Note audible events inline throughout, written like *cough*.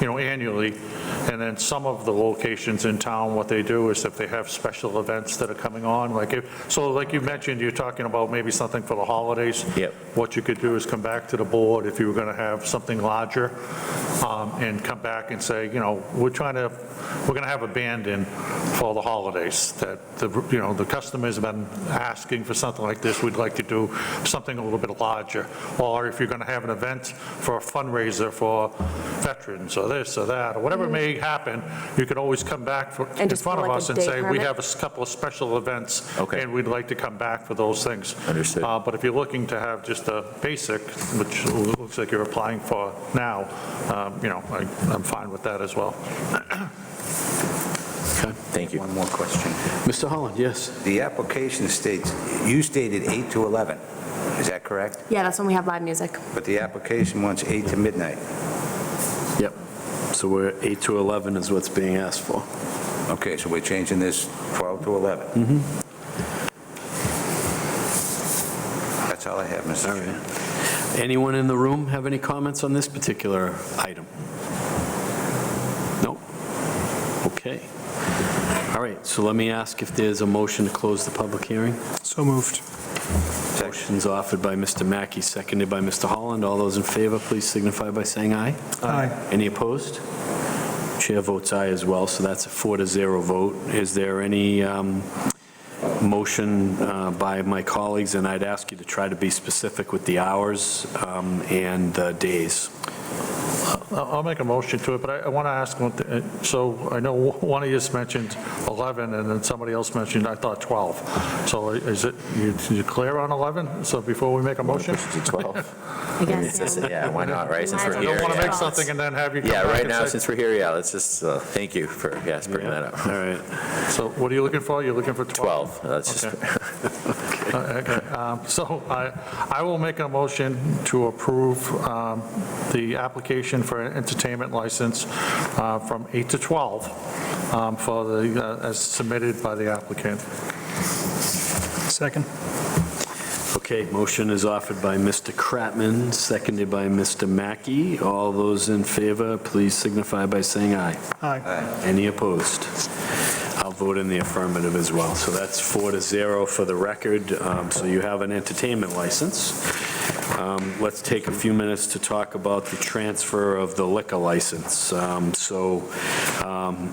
you know, annually. And then some of the locations in town, what they do is if they have special events that are coming on, like, if so like you mentioned, you're talking about maybe something for the holidays. Yep. What you could do is come back to the board if you were going to have something larger, um, and come back and say, you know, we're trying to, we're going to have a band in for the holidays, that, the you know, the customer's been asking for something like this, we'd like to do something a little bit larger. Or if you're going to have an event for a fundraiser for veterans, or this, or that, or whatever may happen, you could always come back for- in Mm-hmm. And just front of pull like a us and day say, we permit?" have a s- couple of special events. Okay. And we'd like to come back for those things. Understood. Uh, But if you're looking to have just a basic, which looks like you're applying for now, um, you know, I- I'm fine with that as well. Thank you. One more question. Mr. Holland, yes. The application states, you stated 8 to 11, is that correct? Yeah, that's when we have live music. But the application wants 8 to midnight. So we're 8 to 11 is what's being asked for. Okay, so we're changing this 12 to 11. That's all I have, Mr. All Chairman. right. Anyone in the room have any comments on this particular item? No? Okay. All right, so let me ask if there's a motion to close the public hearing. So moved. Motion's offered by Mr. Mackey, seconded by Mr. Holland. All those in favor, please signify by saying aye. Aye. Any opposed? Chair votes aye as well, so that's a four to zero vote. Is there any um, motion uh, by my colleagues? And I'd ask you to try to be specific with the hours um, and the days. I'll I'll make a motion to it, but I- I want to ask, one thi- uh, so I know one of yous mentioned 11, and then somebody else mentioned, I thought 12. So uh, is it, you you clear on 11? So before we make a motion? Push it to 12. I guess. It's- yeah. Yeah, why not, right? Since I we're I here. don't want to yeah. make something and then have you come Yeah, back right and now, say- since we're here, yeah, let's just, uh, thank you for, yes, bringing that up. All right, So what are you looking for? You're looking for 12? 12, that's just, *laughs* Okay, um, So I, I will make a motion to approve um, the application for an entertainment license uh, from 8 to 12 um, for the, uh, as submitted by the applicant. Second. okay, motion is offered by Mr. Kratman, seconded by Mr. Mackey. All those in favor, please signify by saying aye. Aye. Any opposed? I'll vote in the affirmative as well. So that's four to zero for the record, Um, so you have an entertainment license. Um, Let's take a few minutes to talk about the transfer of the liquor license. Um, So um,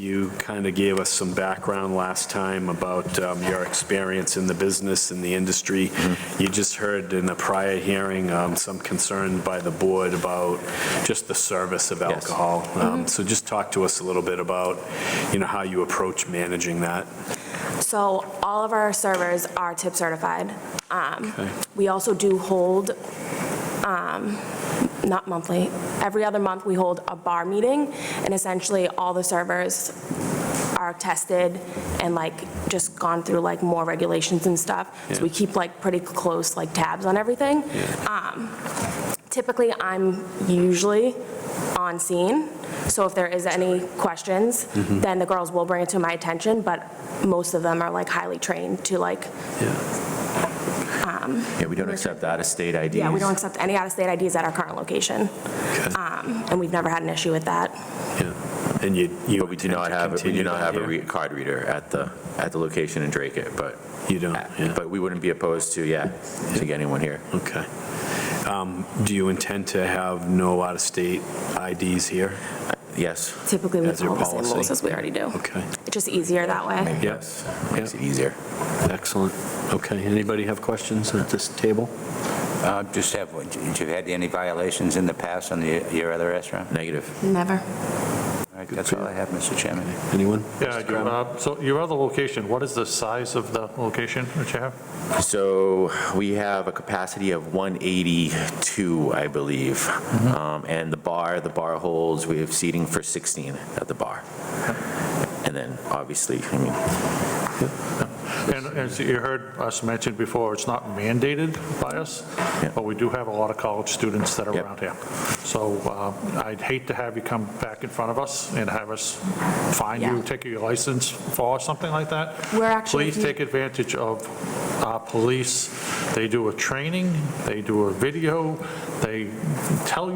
you kind of gave us some background last time about um, your experience in the business and the industry. Mm-hmm. You just heard in the prior hearing um, some concern by the board about just the service of Yes. alcohol. Um, So just talk to us a little bit about, you know, how you approach managing that. So all of our servers are tip certified. Um, Okay. We also do hold, um, not monthly, every other month, we hold a bar meeting, and essentially, all the servers are tested and like, just gone through like more regulations and stuff. So we Yeah. keep like pretty close like tabs on everything. Um, Typically, I'm usually on scene, so if there is any questions, Mm-hmm. then the girls will bring it to my attention, but most of them are like highly trained to like, yeah, we don't accept out-of-state IDs. yeah, we don't accept any out-of-state IDs at our current location, Okay. Um, and we've never had an issue with that. Yeah. And you, you. But we do not have, we do not have a re- card reader at the, at the location in Drake it, but, uh, You Oh, don't, yeah. but we wouldn't be opposed to, yeah, to getting one here. Okay. Um, Do you intend to have no out-of-state IDs here? Yes, Typically, we As your follow the same rules policy. as we already do. Okay, It's just easier that way. maybe yes, makes Yeah. it easier. excellent. Okay, anybody have questions at this table? Uh, Just have, one. did you had any violations in the past on the- your other restaurant? Negative. Never. All right, That's all I have, Mr. Chairman. Anyone? Yeah, I do. Uh, so your other location, what is the size of the location that you have? So we have a capacity of 182, I believe. Um, And the bar, the bar holds, we have seating for 16 at the bar. And then, obviously, I mean, And as you heard us mention before, it's not mandated by us, Yeah. but we do have a lot of college students that are Yep. around here. So uh, I'd hate to have you come back in front of us and have us find you, Yeah. take your license for something like that. We're actually- Please take advantage of our police. They do a training, they do a video, they tell you.